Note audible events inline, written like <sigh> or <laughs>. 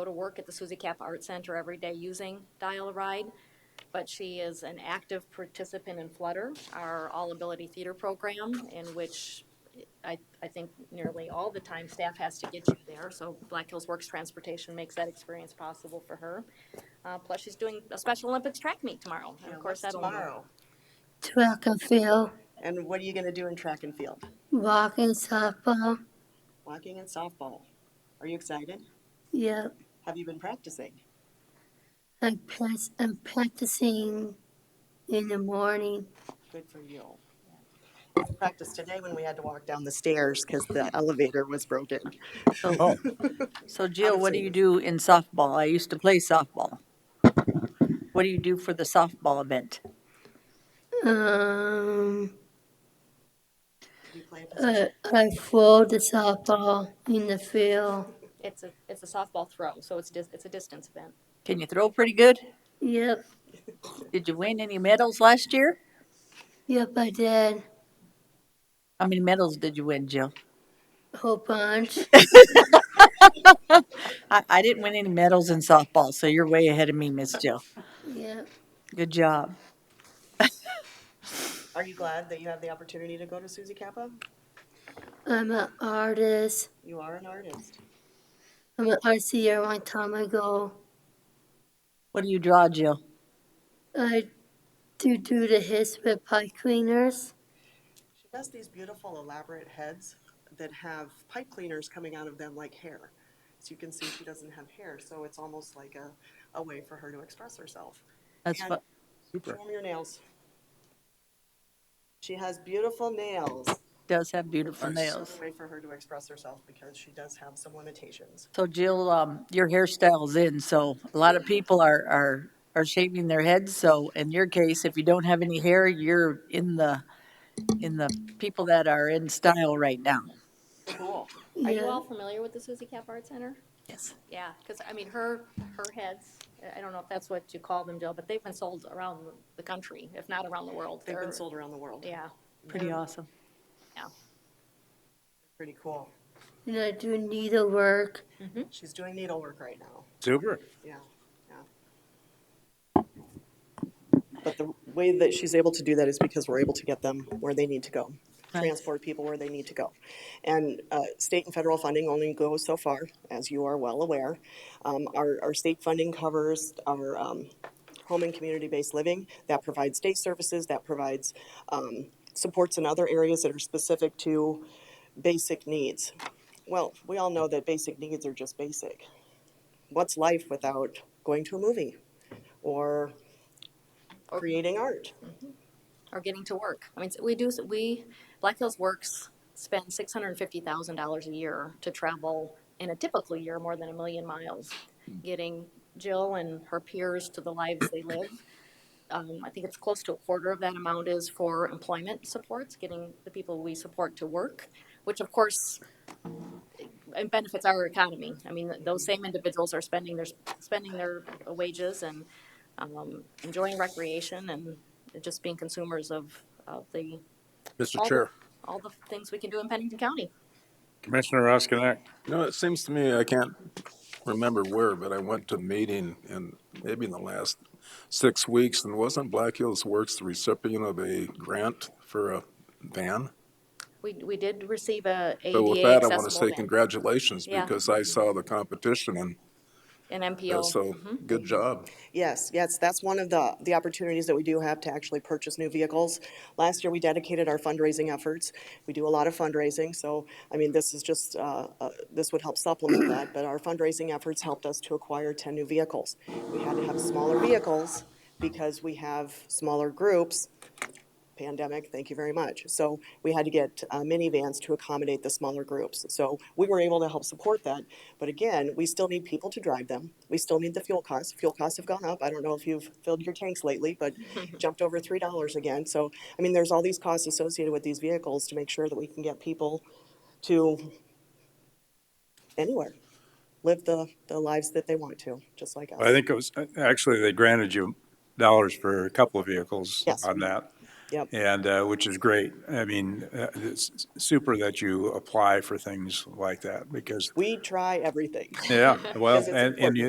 go to work at the Suzy Cap Art Center every day using Dial-A-Ride, but she is an active participant in Flutter, our all-ability theater program, in which I, I think nearly all the time staff has to get you there, so Black Hills Works Transportation makes that experience possible for her. Uh, plus she's doing a Special Olympics track meet tomorrow, and Yeah, of course what's that'll. tomorrow. track and field, And what are you going to do in track and field? walking, softball. Walking and softball. Are you excited? Yep, Have you been practicing? I press, I'm practicing in the morning. Good for you. I Practiced today when we had to walk down the stairs because the elevator was broken. Oh, So Jill, what Obviously. do you do in softball? I used to play softball. What do you do for the softball event? Um, Did you play a position? I, I throw the softball in the field. It's a, it's a softball throw, so it's dis, it's a distance event. Can you throw pretty good? Yep, Did you win any medals last year? yep, I did. How many medals did you win, Jill? Whole bunch. I, I didn't win any medals in softball, so you're way ahead of me, Miss Jill. Yep, Good job. Are you glad that you have the opportunity to go to Suzy Kappa? I'm an artist. You are an artist. I'm an art seer one time ago. What do you draw, Jill? I do do the hits with pipe cleaners. She does these beautiful elaborate heads that have pipe cleaners coming out of them like hair. So you can see she doesn't have hair, so it's almost like a, a way for her to express herself. That's And- what, Show 'em your nails. She has beautiful nails. does have beautiful It's nails. a way for her to express herself because she does have some limitations. So Jill, um, your hairstyle's in, so a lot of people are, are, are shaving their heads, so in your case, if you don't have any hair, you're in the, in the people that are in style right now. Cool. Are you Yeah. all familiar with the Suzy Cap Art Center? Yes. Yeah, because, I mean, her, her heads, I don't know if that's what you call them, Jill, but they've been sold around the country, if not around the world. They've They're- been sold around the world. Yeah, Pretty awesome. yeah. Pretty cool. And I do needlework. She's doing needlework right now. super. Yeah, yeah. But the way that she's able to do that is because we're able to get them where they need to go, transport people where they need to go. And uh, state and federal funding only goes so far, as you are well aware. Um, Our, our state funding covers our um, home and community-based living, that provides day services, that provides um, supports in other areas that are specific to basic needs. Well, we all know that basic needs are just basic what's life without going to a movie or creating art? Or getting to work. I mean, we do, we, Black Hills Works spends six hundred and fifty thousand dollars a year to travel in a typical year, more than a million miles, getting Jill and her peers to the lives they live. um, I think it's close to a quarter of that amount is for employment supports, getting the people we support to work, which of course it benefits our economy. I mean, those same individuals are spending their, spending their wages and um, enjoying recreation and just being consumers of, of the, Mr. all the, Chair. all the things we can do in Pennington County. Commissioner Roskinek. You know, it seems to me, I can't remember where, but I went to a meeting in, maybe in the last six weeks, and wasn't Black Hills Works the recipient of a grant for a van? We, we did receive a So with ADA that, I want to say accessible van, congratulations, Yeah. because I saw the competition, and an uh, MPO. so, Mm-hmm. good job. Yes, yes, that's one of the, the opportunities that we do have to actually purchase new vehicles. Last year, we dedicated our fundraising efforts. We do a lot of fundraising, so, I mean, this is just, uh, uh, this would help supplement that, but our fundraising efforts helped us to acquire 10 new vehicles. We had to have smaller vehicles because we have smaller groups, pandemic, thank you very much. So we had to get uh, minivans to accommodate the smaller groups. So we were able to help support that. But again, we still need people to drive them. We still need the fuel costs. Fuel costs have gone up. I don't know if you've filled your tanks lately, but jumped over three dollars again. So, I mean, there's all these costs associated with these vehicles to make sure that we can get people to anywhere, live the, the lives that they want to, just like us. I think it was, actually, they granted you dollars for a couple of vehicles Yes. on that. Yep. And, uh, which is great. I mean, uh, it's super that you apply for things like that because, We try everything. yeah, <laughs> well, Because it's and, and you,